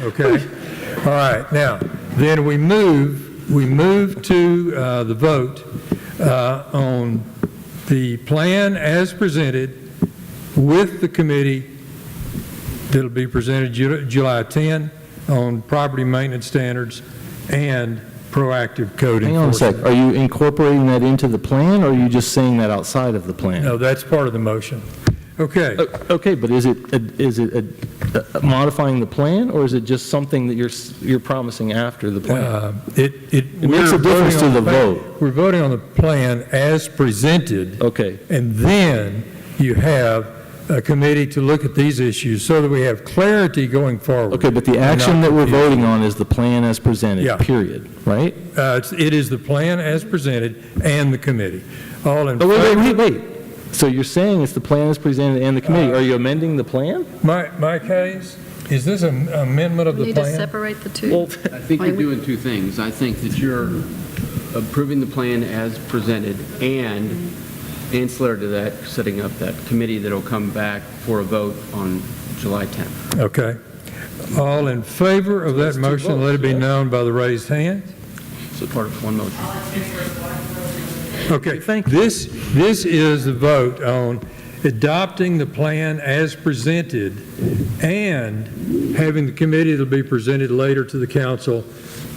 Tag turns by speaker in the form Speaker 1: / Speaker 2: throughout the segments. Speaker 1: Okay, all right, now, then we move, we move to uh, the vote uh, on the plan as presented with the committee that'll be presented Ju- July 10 on property maintenance standards and proactive code enforcement.
Speaker 2: Hang on a sec, are you incorporating that into the plan, or are you just saying that outside of the plan?
Speaker 1: No, that's part of the motion. Okay,
Speaker 2: O- Okay, but is it, is it uh, modifying the plan, or is it just something that you're, s- you're promising after the plan?
Speaker 1: uh, it, it.
Speaker 2: It makes a
Speaker 1: we're
Speaker 2: difference to
Speaker 1: voting
Speaker 2: the
Speaker 1: on plan-
Speaker 2: vote.
Speaker 1: We're voting on the plan as presented.
Speaker 2: Okay,
Speaker 1: And then you have a committee to look at these issues so that we have clarity going forward.
Speaker 2: okay, but the action that we're voting on is the plan as
Speaker 1: Yeah.
Speaker 2: presented, period, right?
Speaker 1: Uh, it's- It is the plan as presented and the committee. All in
Speaker 2: Oh, wait,
Speaker 1: favor?
Speaker 2: wait, wait, wait. So you're saying it's the plan as presented and the
Speaker 1: Uh,
Speaker 2: committee, are you amending the plan?
Speaker 1: My, my case, is this an amendment of
Speaker 3: We
Speaker 1: the
Speaker 3: need to
Speaker 1: plan?
Speaker 3: separate the two.
Speaker 4: I think you're doing two things. I think that you're approving the plan as presented and ancillary to that, setting up that committee that'll come back for a vote on July 10th.
Speaker 1: Okay. All in favor of that motion, let it be known by the raised hand.
Speaker 4: So part of one motion.
Speaker 1: Okay. This, this is a vote on adopting the plan as presented and having the committee that'll be presented later to the council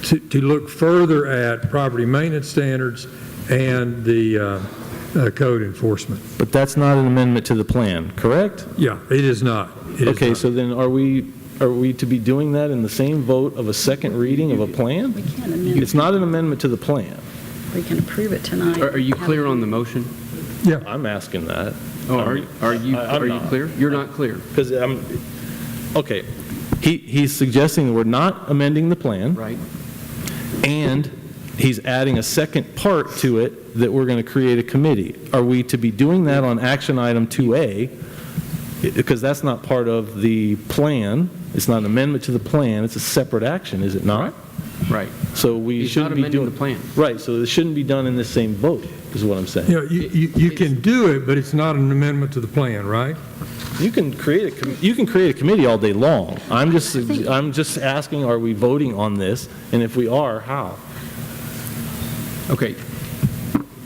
Speaker 1: to, to look further at property maintenance standards and the uh, uh, code enforcement.
Speaker 2: But that's not an amendment to the plan, correct?
Speaker 1: Yeah, it is not. It is
Speaker 2: Okay,
Speaker 1: not.
Speaker 2: so then are we, are we to be doing that in the same vote of a second reading of a plan?
Speaker 3: We can't amend,
Speaker 2: It's not an amendment to the plan.
Speaker 3: we can approve it tonight.
Speaker 4: Are are you clear on the motion?
Speaker 2: I'm asking that,
Speaker 4: Oh, Are are you,
Speaker 2: I- I'm
Speaker 4: are you
Speaker 2: not.
Speaker 4: clear? You're not clear.
Speaker 2: because I'm, okay, he, he's suggesting that we're not amending the plan,
Speaker 4: Right.
Speaker 2: and he's adding a second part to it that we're going to create a committee. Are we to be doing that on action item 2A? Because that's not part of the plan, it's not an amendment to the plan, it's a separate action, is it not?
Speaker 4: Right.
Speaker 2: So we
Speaker 4: He's not
Speaker 2: shouldn't be
Speaker 4: amending the
Speaker 2: doing.
Speaker 4: plan.
Speaker 2: Right, so it shouldn't be done in the same vote, is what I'm saying.
Speaker 1: You know, you, you you can do it, but it's not an amendment to the plan, right?
Speaker 2: You can create a, com- you can create a committee all day long. I'm just, I'm just asking, are we voting on this? And if we are, how?
Speaker 4: Okay.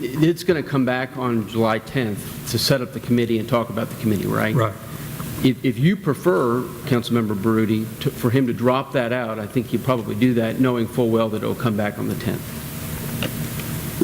Speaker 4: It- It's going to come back on July 10th to set up the committee and talk about the committee, right?
Speaker 1: Right.
Speaker 4: If, if you prefer, Councilmember Baroody, to- for him to drop that out, I think he'd probably do that, knowing full well that it'll come back on the 10th.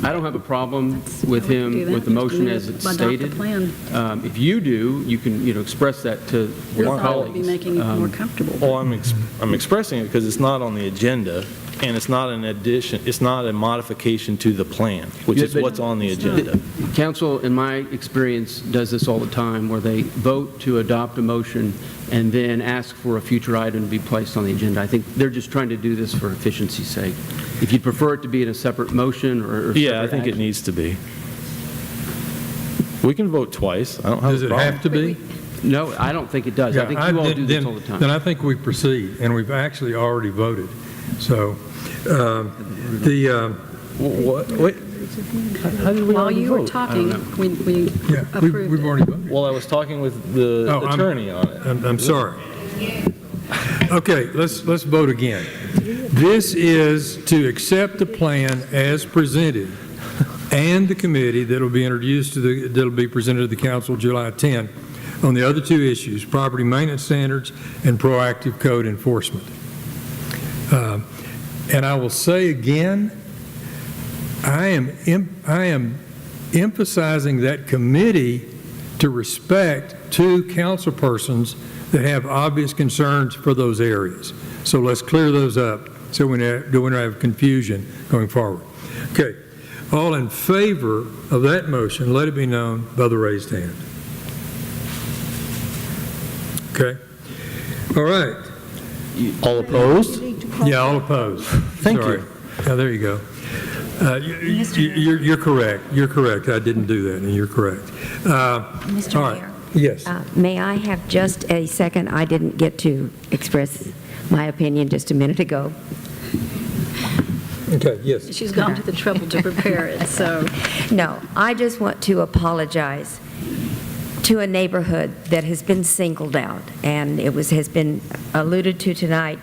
Speaker 4: I don't have a problem with him, with the motion as it's
Speaker 3: Adopt the
Speaker 4: stated.
Speaker 3: plan.
Speaker 4: Um, If you do, you can, you know, express that to
Speaker 3: We
Speaker 4: your
Speaker 3: thought it would be
Speaker 4: colleagues.
Speaker 3: making it
Speaker 4: Um,
Speaker 3: more comfortable.
Speaker 2: Well, I'm, ex- I'm expressing it because it's not on the agenda, and it's not an addition, it's not a modification to the plan, which
Speaker 4: Yeah,
Speaker 2: is
Speaker 4: but-
Speaker 2: what's on the agenda.
Speaker 4: Council, in my experience, does this all the time, where they vote to adopt a motion and then ask for a future item to be placed on the agenda. I think they're just trying to do this for efficiency's sake. If you'd prefer it to be in a separate motion or... or
Speaker 2: Yeah, I
Speaker 4: separate
Speaker 2: think it
Speaker 4: action-
Speaker 2: needs to be. We can vote twice, I don't have
Speaker 1: Does
Speaker 2: a
Speaker 1: it
Speaker 2: problem.
Speaker 1: have to be?
Speaker 4: No, I don't think it does. I
Speaker 1: Yeah,
Speaker 4: think you all
Speaker 1: then-
Speaker 4: do this
Speaker 1: then-
Speaker 4: all the
Speaker 1: Then
Speaker 4: time.
Speaker 1: I think we proceed, and we've actually already voted. So, um, the, um,
Speaker 2: Wha- wait, how how did we
Speaker 3: While
Speaker 2: already
Speaker 3: you were
Speaker 2: vote?
Speaker 3: talking, we we
Speaker 1: yeah, we- we've
Speaker 3: approved it.
Speaker 1: already voted.
Speaker 2: Well, I was talking with the
Speaker 1: Oh, I'm-
Speaker 2: attorney on it.
Speaker 1: I'm, I'm sorry. Okay, let's, let's vote again. This is to accept the plan as presented and the committee that'll be introduced to the, that'll be presented to the council July 10 on the other two issues, property maintenance standards and proactive code enforcement. Um, And I will say again, I am, em- I am emphasizing that committee to respect two councilpersons that have obvious concerns for those areas. So let's clear those up so we don't we don't have confusion going forward. Okay, all in favor of that motion, let it be known by the raised hand. Okay, all right,
Speaker 2: All opposed?
Speaker 1: yeah, all opposed.
Speaker 2: Thank you.
Speaker 1: Sorry. Yeah, there you go. Uh, you- you- You're, you're correct, you're correct, I didn't do that, and you're correct. Uh, All
Speaker 5: Mr.
Speaker 1: right.
Speaker 5: Mayor,
Speaker 1: Yes.
Speaker 5: uh, may I have just a second? I didn't get to express my opinion just a minute ago.
Speaker 1: Okay, yes.
Speaker 3: She's gone to the trouble to prepare it, so
Speaker 5: No, I just want to apologize to a neighborhood that has been singled out, and it was, has been alluded to tonight